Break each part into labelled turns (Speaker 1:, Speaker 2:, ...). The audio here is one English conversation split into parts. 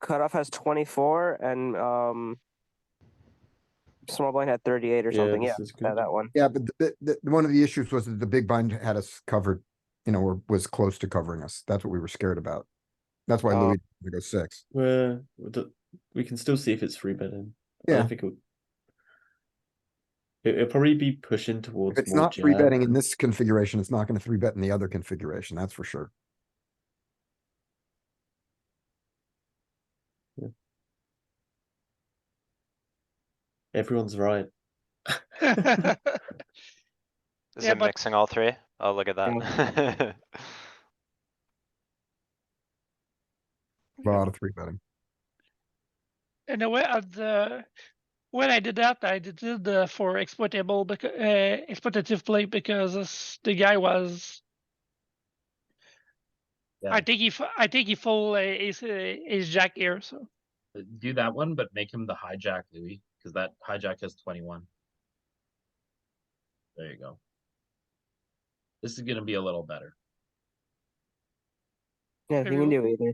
Speaker 1: Cutoff has 24 and um, Small Blind had 38 or something. Yeah,
Speaker 2: this is
Speaker 1: yeah,
Speaker 2: good.
Speaker 1: that one.
Speaker 3: Yeah, but the, the, one of the issues was that the big blind had us covered, you know, or was close to covering us. That's what we were scared about. That's why
Speaker 1: Oh.
Speaker 3: Louis didn't go six.
Speaker 2: We're- we do- we can still see if it's three betting. I
Speaker 3: Yeah.
Speaker 2: think it'll, it, will probably be pushing towards.
Speaker 3: If it's
Speaker 2: more
Speaker 3: not three
Speaker 2: jab.
Speaker 3: betting in this configuration, it's not gonna three bet in the other configuration, that's for sure.
Speaker 2: Everyone's right.
Speaker 4: Is
Speaker 5: Yeah,
Speaker 4: it
Speaker 5: but-
Speaker 4: mixing all three? Oh, look at that.
Speaker 3: A lot of three betting.
Speaker 5: in a way at the when I did that, I did it uh, for exploitable because uh, exploitative play because s- the guy was.
Speaker 6: Yeah.
Speaker 5: I think he, f- I think he fold uh, ace, uh, ace jack here. So
Speaker 6: Do that one, but make him the hijack Louis, because that hijack has twenty-one. There you go. This is gonna be a little better.
Speaker 1: Yeah, if you can do either.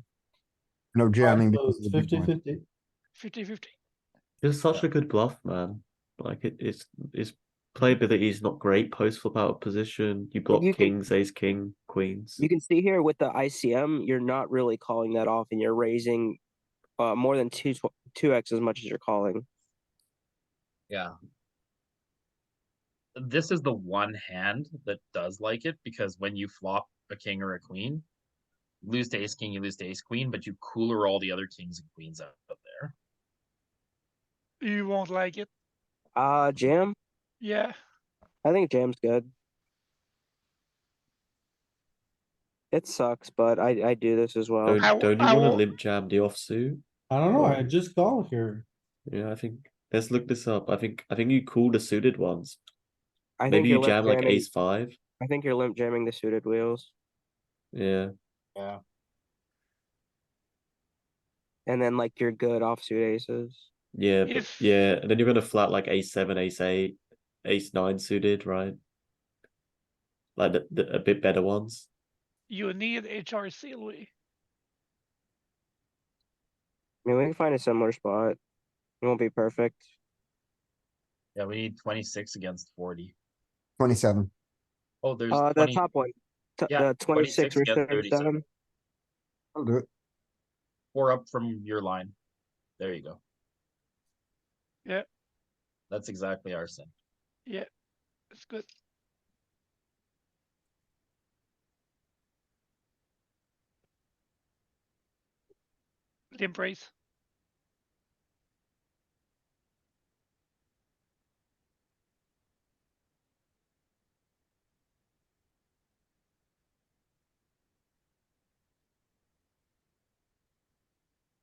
Speaker 3: No jamming.
Speaker 7: So
Speaker 3: because of the big
Speaker 7: fifty
Speaker 3: blind.
Speaker 7: fifty.
Speaker 5: 50-50.
Speaker 2: It's such a good bluff, man. Like it, it's his playability is not great post flop out of position. You block
Speaker 1: you can-
Speaker 2: kings, ace, king, queens.
Speaker 1: You can see here with the ICM, you're not really calling that off and you're raising uh, more than two tw- 2x as much as you're calling.
Speaker 6: Yeah. This is the one hand that does like it, because when you flop a king or a queen, you lose to ace king, you lose to ace queen, but you cooler all the other kings and queens out of there.
Speaker 5: You won't like it.
Speaker 1: Uh, jam?
Speaker 5: Yeah.
Speaker 1: I think jam's good. It sucks, but I, I do this as well.
Speaker 2: Don't,
Speaker 5: I-
Speaker 2: don't you
Speaker 5: I
Speaker 2: want to
Speaker 5: will-
Speaker 2: limp jam the offsuit?
Speaker 7: I don't know, I just call here.
Speaker 2: Yeah, I think let's look this up. I think I think you call the suited ones.
Speaker 1: I think
Speaker 2: Maybe
Speaker 1: you're
Speaker 2: you
Speaker 1: limp
Speaker 2: jam like
Speaker 1: jamming-
Speaker 2: ace five.
Speaker 1: I think you're limp jamming the suited wheels.
Speaker 2: Yeah,
Speaker 1: and then like your good offsuit aces.
Speaker 2: yeah, but-
Speaker 5: If-
Speaker 2: yeah. And then you're gonna flat like ace seven, ace eight, ace nine suited, right? Like the, the a bit better ones.
Speaker 5: You need HRC Louis.
Speaker 1: I mean, we can find a similar spot. It won't be perfect.
Speaker 6: Yeah, we need twenty-six against forty.
Speaker 3: Twenty-seven.
Speaker 6: Oh, there's
Speaker 1: Uh, the
Speaker 6: twenty,
Speaker 1: top one, t-
Speaker 6: yeah,
Speaker 1: the twenty-six
Speaker 6: 26
Speaker 1: or
Speaker 6: against 37.
Speaker 1: thirty-seven.
Speaker 3: I'll do it.
Speaker 6: four up from your line. There you go.
Speaker 5: Yeah.
Speaker 6: That's exactly our sin.
Speaker 5: It's good. Limp raise.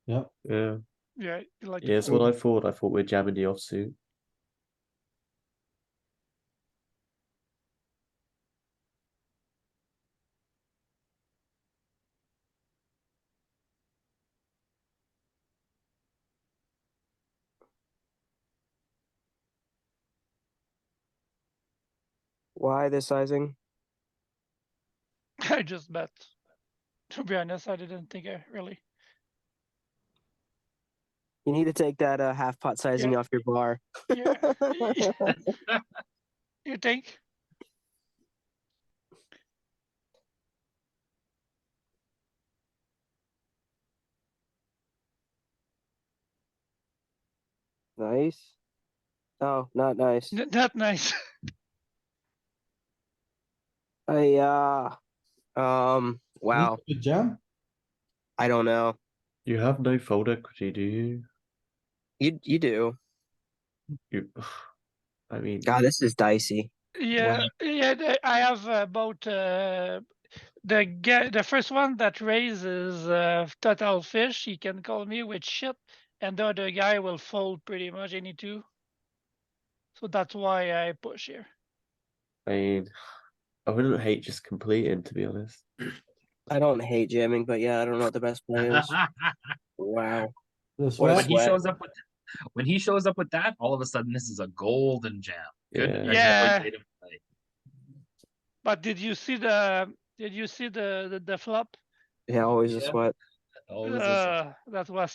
Speaker 2: Yeah,
Speaker 5: Yeah. you Like it.
Speaker 2: yeah. That's what I thought. I thought we're jamming the offsuit.
Speaker 1: Why this sizing?
Speaker 5: I just bet. To be honest, I didn't think I really.
Speaker 1: You need to take that uh, half pot sizing off your bar.
Speaker 5: Yeah. you think?
Speaker 1: nice. Oh, not nice.
Speaker 5: N- Not nice.
Speaker 1: I uh, um, wow.
Speaker 7: Good jam.
Speaker 1: I don't know.
Speaker 2: You have no fold equity, do you?
Speaker 1: You you do.
Speaker 2: You, I mean,
Speaker 1: God, this is dicey.
Speaker 5: yeah, yeah. the- I have uh, both uh, the guy, the first one that raises uh, total fish. He can call me with shit, and the other guy will fold pretty much any two. So that's why I push here.
Speaker 2: I mean, I wouldn't hate just completing to be honest.
Speaker 1: I don't hate jamming, but yeah, I don't know what the best play is. wow.
Speaker 7: The
Speaker 1: What
Speaker 6: when
Speaker 7: sweat,
Speaker 1: is-
Speaker 6: he
Speaker 1: sweat.
Speaker 6: shows up with when he shows up with that, all of a sudden this is a golden jam. Good
Speaker 2: Yeah.
Speaker 6: exploitative play.
Speaker 5: But did you see the? Did you see the the, the flop?
Speaker 1: Yeah, always a
Speaker 6: Yeah.
Speaker 1: sweat.
Speaker 6: Oh, Always a-
Speaker 5: Uh, that was